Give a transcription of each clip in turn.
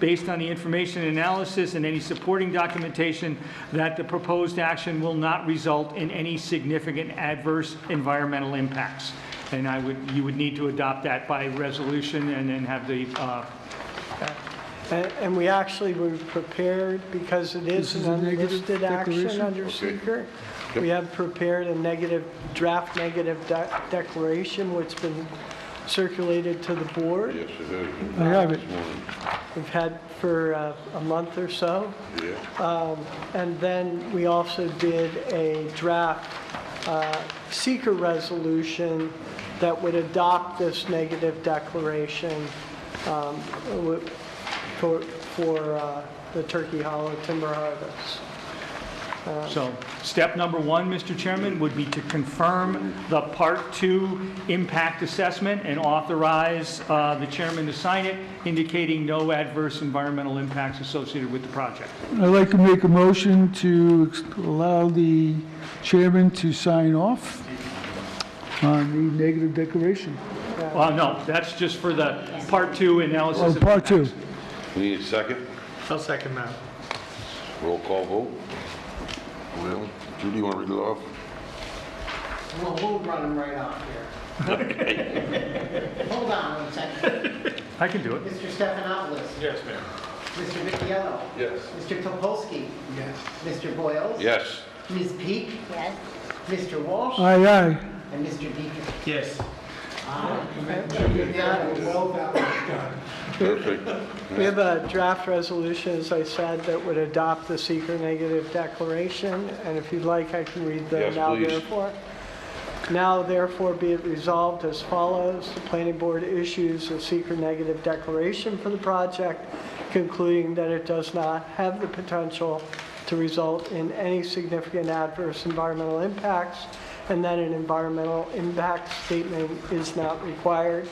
based on the information analysis and any supporting documentation that the proposed action will not result in any significant adverse environmental impacts. And I would, you would need to adopt that by resolution and then have the, uh, And and we actually were prepared, because it is an unlisted action under seeker, we have prepared a negative, draft negative de- declaration, which has been circulated to the board. Yes, it is. I have it. This morning, We've had for uh, a month or so. Um, yeah. And then we also did a draft uh, seeker resolution that would adopt this negative declaration um, wi- for for, uh, the Turkey Hollow timber harvest. So, step number one, Mr. Chairman, would be to confirm the Part Two impact assessment and authorize uh, the chairman to sign it, indicating no adverse environmental impacts associated with the project. I'd like to make a motion to ex- allow the chairman to sign off on the negative declaration. Well, no, that's just for the Part Two analysis. Oh, of part two. impacts. We need a second. I'll second that. Roll call vote. Well, Judy, you want to read it off? We'll, we'll run him right off here. Hold on one second. I can do it. Mr. Stephanopoulos. Yes, ma'am. Mr. Vitiello. Yes. Mr. Topolsky. Yes. Mr. Boyles. Yes. Ms. Peak. Yes. Mr. Walsh. Uh, Aye, aye. And Mr. Deacon. Yes. Perfect. We have a draft resolution, as I said, that would adopt the seeker negative declaration, and if you'd like, I can read the Yes, now please. therefore. Now therefore be it resolved as follows, the planning board issues a seeker negative declaration for the project, concluding that it does not have the potential to result in any significant adverse environmental impacts, and that an environmental impact statement is not required.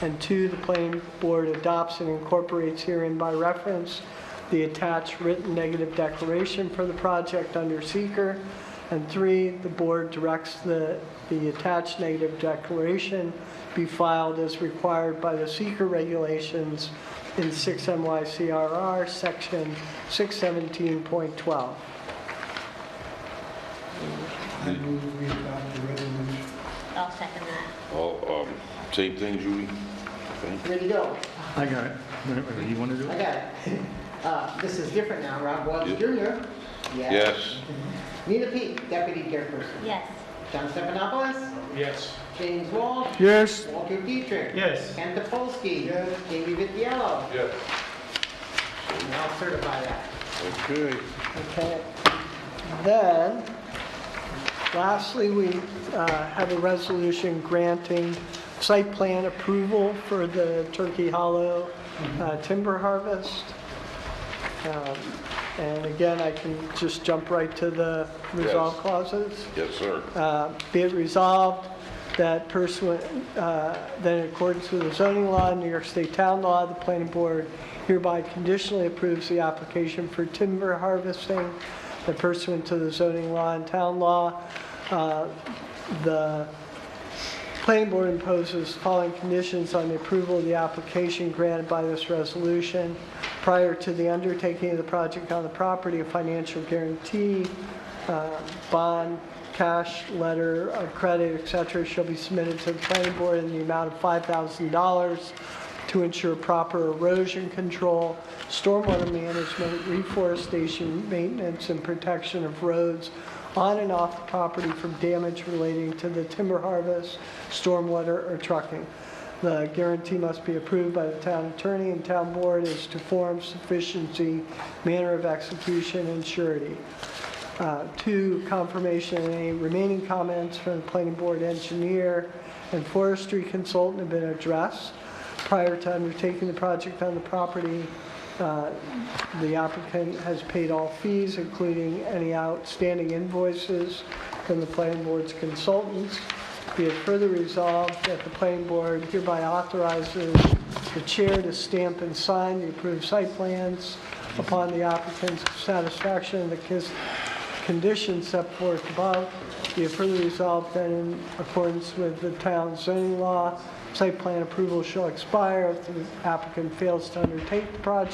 And two, the planning board adopts and incorporates herein by reference the attached written negative declaration for the project under seeker. And three, the board directs the, the attached negative declaration be filed as required by the seeker regulations in 6 MYCRR, section 617.12. I'll second that. All, um, same thing, Judy? Okay. Ready to go. I got it. Whatever You want to do I it? got it. Uh, this is different now. Rob Welch Yep. Jr. Yes. Nita Peak, deputy chairperson. Yes. John Stephanopoulos. Yes. James Walsh. Yes, Walter Dietrich. Yes. Ken Topolsky. Yes. Jamie Vitiello. Yes. And I'll certify that. Okay. Okay. Then, lastly, we uh, have a resolution granting site plan approval for the Turkey Hollow uh, timber harvest. Um, And again, I can just jump right to the resolve Yes. clauses. Yes, sir. Uh, Be it resolved that pursuant, uh, that in accordance with the zoning law, and New York State Town Law, the planning board hereby conditionally approves the application for timber harvesting that pursuant to the zoning law and town law. uh, The Planning board imposes following conditions on the approval of the application granted by this resolution. Prior to the undertaking of the project on the property, a financial guarantee, uh, bond, cash, letter of credit, et cetera, shall be submitted to the planning board in the amount of $5,000 to ensure proper erosion control, stormwater management, reforestation, maintenance, and protection of roads on and off the property from damage relating to the timber harvest, stormwater, or trucking. The guarantee must be approved by the town attorney and town board as to form, sufficiency, manner of execution, and surety. Uh, Two, confirmation of any remaining comments from the planning board engineer and forestry consultant have been addressed prior to undertaking the project on the property. Uh, The applicant has paid all fees, including any outstanding invoices from the planning board's consultants. Be it further resolved that the planning board hereby authorizes the chair to stamp and sign the approved site plans upon the applicant's satisfaction of the cons- conditions set forth above. Be it further resolved that in accordance with the town zoning law, site plan approval shall expire if the applicant fails to undertake the project.